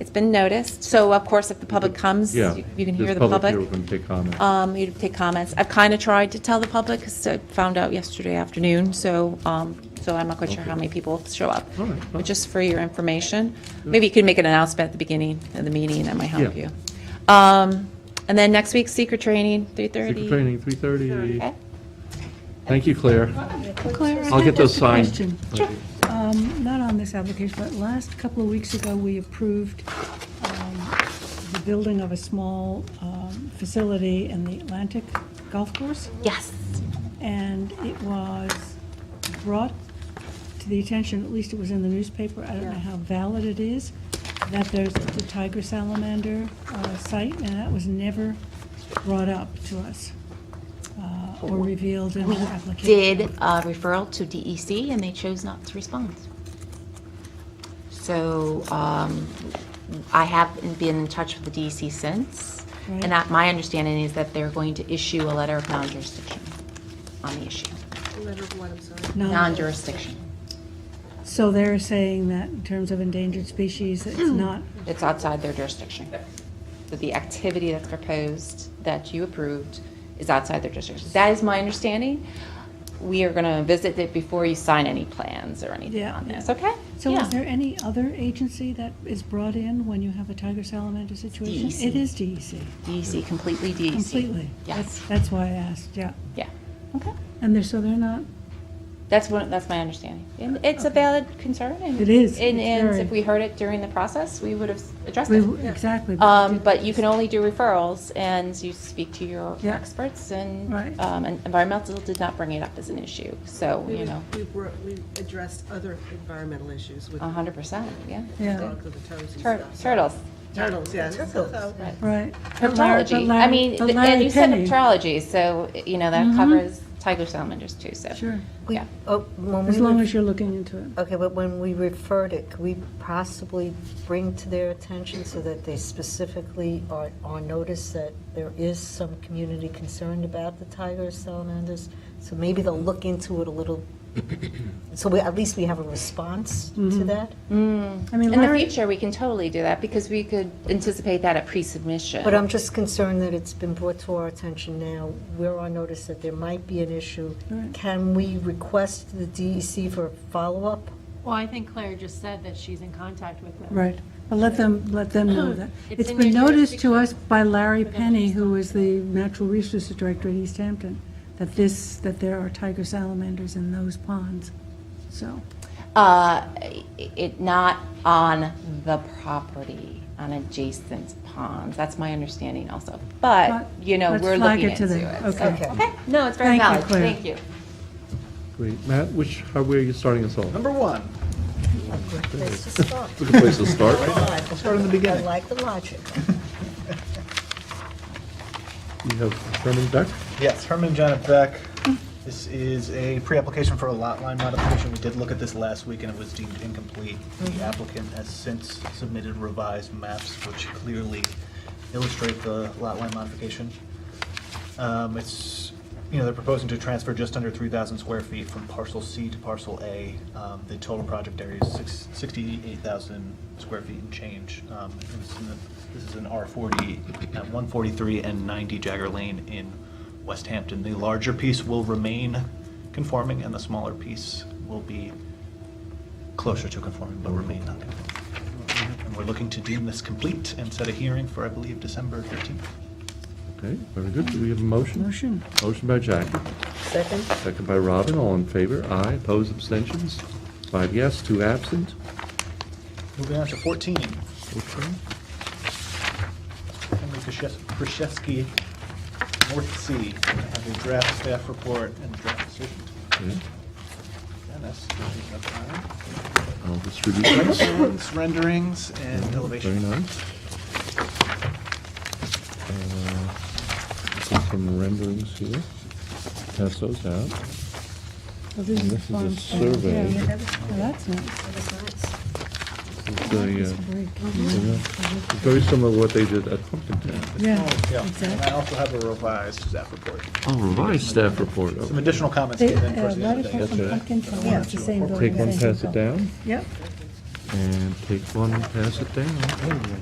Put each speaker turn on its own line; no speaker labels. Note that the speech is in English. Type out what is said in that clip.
It's been noticed, so of course, if the public comes,
Yeah.
you you can hear
there's
the public.
here, We're going to take comments.
Um, you take comments. I've kind of tried to tell the public, because I found out yesterday afternoon, so, um, so I'm not quite sure how many people show up.
All right,
But
fine.
just for your information, maybe you could make an announcement at the beginning of the meeting, that might help
Yeah.
you. Um, and then next week, secret training, three
Secret
thirty.
training, 3:30. Thank you, Claire.
Clara,
I'll get those
just a
signed.
question. Um, Not on this application, but last couple of weeks ago, we approved um, the building of a small um, facility in the Atlantic Golf Course,
Yes.
and it was brought to the attention, at least it was in the newspaper, I don't know how valid it is, that there's the tiger salamander uh, site, and that was never brought up to us uh, or revealed in the application.
did a referral to DEC, and they chose not to respond. So um, I haven't been in touch with the DEC since, and I- my understanding is that they're going to issue a letter of non-jurisdiction on the issue.
No.
Non-jurisdiction.
So they're saying that in terms of endangered species, it's
Hmm.
not,
It's outside their jurisdiction. That the activity that's proposed, that you approved, is outside their jurisdiction. That is my understanding. We are going to visit it before you sign any plans or anything
Yeah,
on
yeah.
this, okay?
so
Yeah.
is there any other agency that is brought in when you have a tiger salamander situation?
DEC.
It is DEC,
DEC, completely DEC.
completely.
E Yes.
That's- That's why I asked, yeah.
Yeah. Okay.
And they're, so they're not,
That's what, that's my understanding. And it's a valid concern and.
It is.
And,
It's
and
very-
if we heard it during the process, we would have addressed
we-
it.
exactly.
Um, but you can only do referrals and you speak to your
Yeah.
experts and,
Right.
um, and environmental did not bring it up as an issue. So,
We
you
was-
know,
We were, we addressed other environmental issues with
a
the
hundred percent, yeah.
Yeah,
dogs and the turtles and
Uh, Tur-
stuff.
Turtles,
Turtles, yes. Turtles.
right. But Larry- but
herpetology. I
Larry-
mean,
but
th- and
Larry
you said
Penny- Mm-hmm.
herpetology, so, you know, that covers tiger salamanders too, so.
Sure,
Yeah.
Oh, when
as
we,
long
re-
as you're looking into it.
okay, but when we referred it, could we possibly bring to their attention so that they specifically are, are noticed that there is some community concerned about the tigers, salamanders? So maybe they'll look into it a little, so we, at least we have a response
Mm-hmm.
to that?
I mean,
In the
Larry,
future, we can totally do that because we could anticipate that at pre-submission.
But I'm
um,
just concerned that it's been brought to our attention now. We're on notice that there might be an issue. Can we request the DEC for follow-up?
Well, I think Claire just said that she's in contact with them.
right, but let them, let them know that.
It's
It's
in
been
their
noticed to
jurisdiction.
us by Larry Penny, who is the Natural Resources Director at East Hampton, that this, that there are tiger salamanders in those ponds, so.
Uh, i- it, not on the property, on adjacent ponds. That's my understanding also. But,
But
you know,
let's
we're
flag
looking
it to
into it.
them.
So-
Okay.
Okay, no, it's very
Thank you,
valid.
Claire.
Thank you.
Great. Matt, which, how, where are you starting us off?
Number one,
Let's just start.
Good place to start, right?
Let's
start in the beginning.
I like the logic.
You have Herman Beck.
yes, Herman John at Beck. This is a pre-application for a lot line modification. We did look at this last week and it was deemed incomplete. The applicant has since submitted revised maps which clearly illustrate the lot line modification. Um, It's, you know, they're proposing to transfer just under 3,000 square feet from parcel C to parcel A. Um, The total project area is six- 68,000 square feet and change. Um, and this is in the- This is an R40 at 143 and 90 Jagger Lane in West Hampton. The larger piece will remain conforming and the smaller piece will be closer to conforming but remain non-conforming. And we're looking to deem this complete and set a hearing for, I believe, December 13th.
Okay, very good. Do we have a motion?
Motion.
Motion by Jackie,
Second?
second by Robin, all in favor. Aye, opposed, abstentions? Five yes, two absent.
Moving on to 14,
Okay.
Henry Krzyz- Krzyzewski, North Sea. I have a draft staff report and draft decision.
Okay.
Dennis, do you have time?
I'll distribute those.
Plans, Renderings and
Very
elevation.
nice. Uh, See some renderings here. Pass those out.
Well, this
And
is
this is a
farm stand.
survey.
Yeah, well, that's nice.
It's a, uh,
Great.
Oh,
Very similar to what they did at Pumpkintown.
Yeah,
Yeah,
and I
exactly.
also have a revised staff report.
Oh, revised staff report.
Some additional comments
They,
came in
uh,
towards the end of the
Waterfall from
day.
Yesterday.
Pumpkin Town, it's the same building.
Take one, pass it down.
Yep,
and take one and pass it down.